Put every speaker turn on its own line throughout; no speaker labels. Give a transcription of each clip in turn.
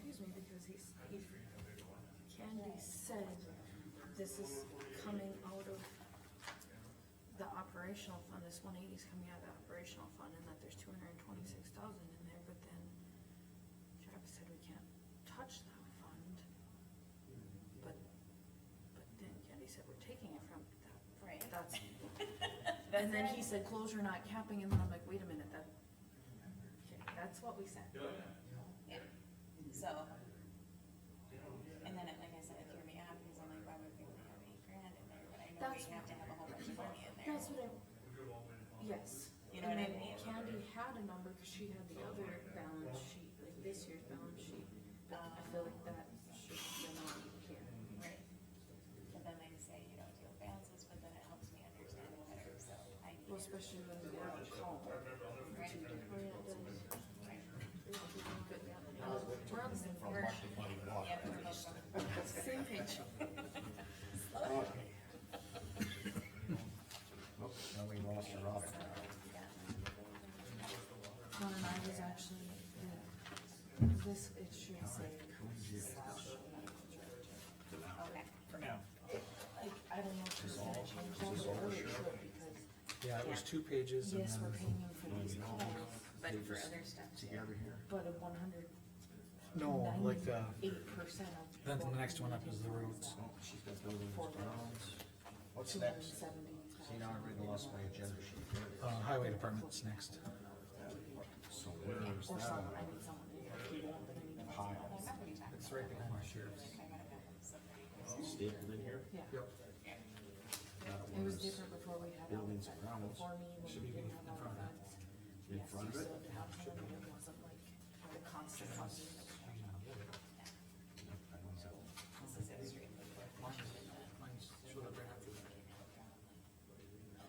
because he's, he, Candy said this is coming out of the operational fund, this one eighty's coming out of the operational fund, and that there's two hundred and twenty-six thousand in there, but then Travis said we can't touch that fund. But, but then Candy said we're taking it from that,
Right.
that's, and then he said closure not capping, and then I'm like, wait a minute, that, okay, that's what we said.
Yeah, so. And then, it- like I said, it threw me off, because I'm like, why would we only have eight grand in there, but I know we
That's-
have to have a whole bunch of money in there.
That's what I. Yes.
You know
And
what I
then
mean?
Candy had a number, cause she had the other balance sheet, like this year's balance sheet, but I feel like that should be not here.
Right. But then they say you don't deal balances, but then it helps me understand it better, so I need.
Well, especially when we have a call.
Right.
We're on the same
From
page.
what the money was.
Yeah, we're both from-
Same page.
Now we lost her off.
One and I was actually, yeah, this, it should say slash.
Okay.
Like, I don't know if she's gonna change that, but really it should, because,
Yeah, it was two pages and
yes, we're
then,
paying him for these calls,
But for other stuff too.
but a one hundred
no, like uh, the,
eight percent of.
then the next one up is the roots.
She's got buildings,
uh, Four
grounds. What's
Two hundred and
next?
seventy
See, now I really lost my agenda sheet.
Uh, highway department's next.
So where is
Or
that?
someone, I need someone to do it, but I need to know
Pile.
I'm not gonna be talking
It's right behind my sheriff's.
Stapled in here?
Oh, Yeah,
Yep.
That
it was
was
different before we had all
Buildings
that,
and grounds.
before me, when we didn't have all that.
In
Yes,
front
you
of it?
still had to have them, and it wasn't like the constant funding. that we had.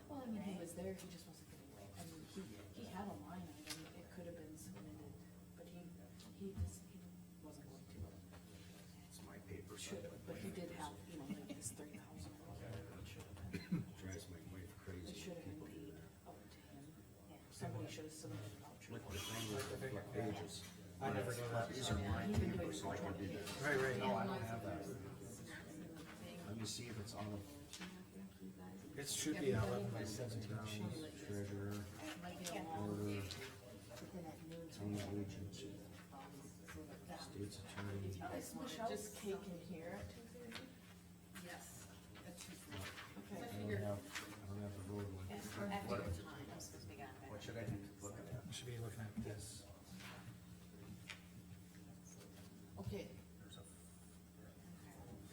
Well, I mean, he was there, he just wasn't getting it, I mean, he, he had a line item, it could have been submitted, but he, he just, he wasn't going to.
It's my paper. so
Should, have, but he did have, you know, like this three thousand.
it Drives my wife
It
crazy.
should have been paid up to him, somebody should have submitted a voucher.
Look at the thing with the black pages.
I never did that.
These are my
He even did
papers, so I did that.
Right, right.
No, I don't have that.
Thing,
Let me see if it's on
thank you guys.
It should be eleven by seventeen
the
sheet.
grounds, treasurer,
Might be a long,
order,
but then at noon.
town agency,
That-
state's attorney.
Is Michelle's cake in here at two thirty?
Yes, at two
Okay.
I don't have, I don't have the road one.
After your time, I'm supposed to be gone. by
What should I look at?
You Should be looking at this.
Okay,
There's a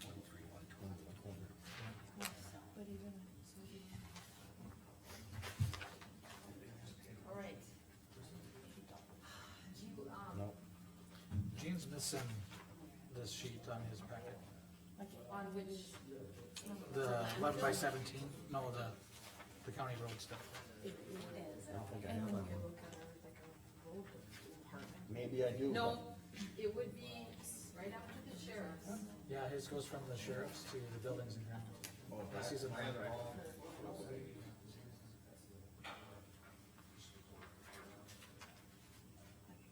forty-three, one twenty, one twenty.
But even, so we
all right. Do you, um,
No,
Gene's missing this sheet on his packet.
like on which.
The eleven by seventeen, no, the, the county road stuff.
It is.
I don't think I
And
have
then
that
you
one.
look at it like a road department.
Maybe I do.
no, it would be right after the sheriff's.
Yeah, his goes from the sheriff's to the buildings and grounds. This is a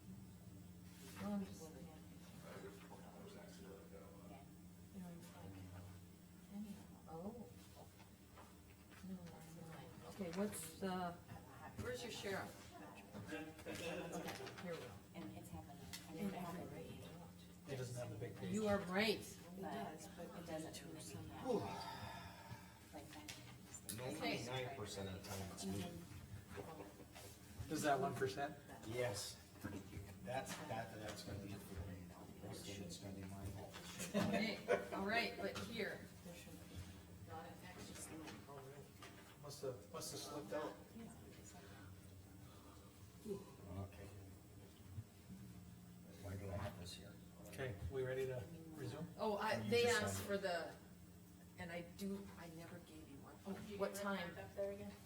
No, I'm just looking at.
Yeah.
You know, it's like, any of them. oh. No, I'm not. Okay, what's the,
Where's your sheriff?
okay, here we go.
And it's happening. I mean, it happened.
He doesn't have the big page.
You are right.
It does, but
It
it
doesn't.
doesn't.
do anything yet. Like that.
Ninety-nine percent of the time it's me.
Is that one percent?
Yes. That's, that, that's gonna be it for me. That's when it's gonna be my fault.
Okay, all right, but here,
There should be. Not an extra sign.
Must have, must have slipped out.
Okay. Why do I have this here?
Okay, we ready to resume?
oh, I,
You
they
just
asked
said-
for the, and I do, I never gave you one.
Oh, What time?
Up there again?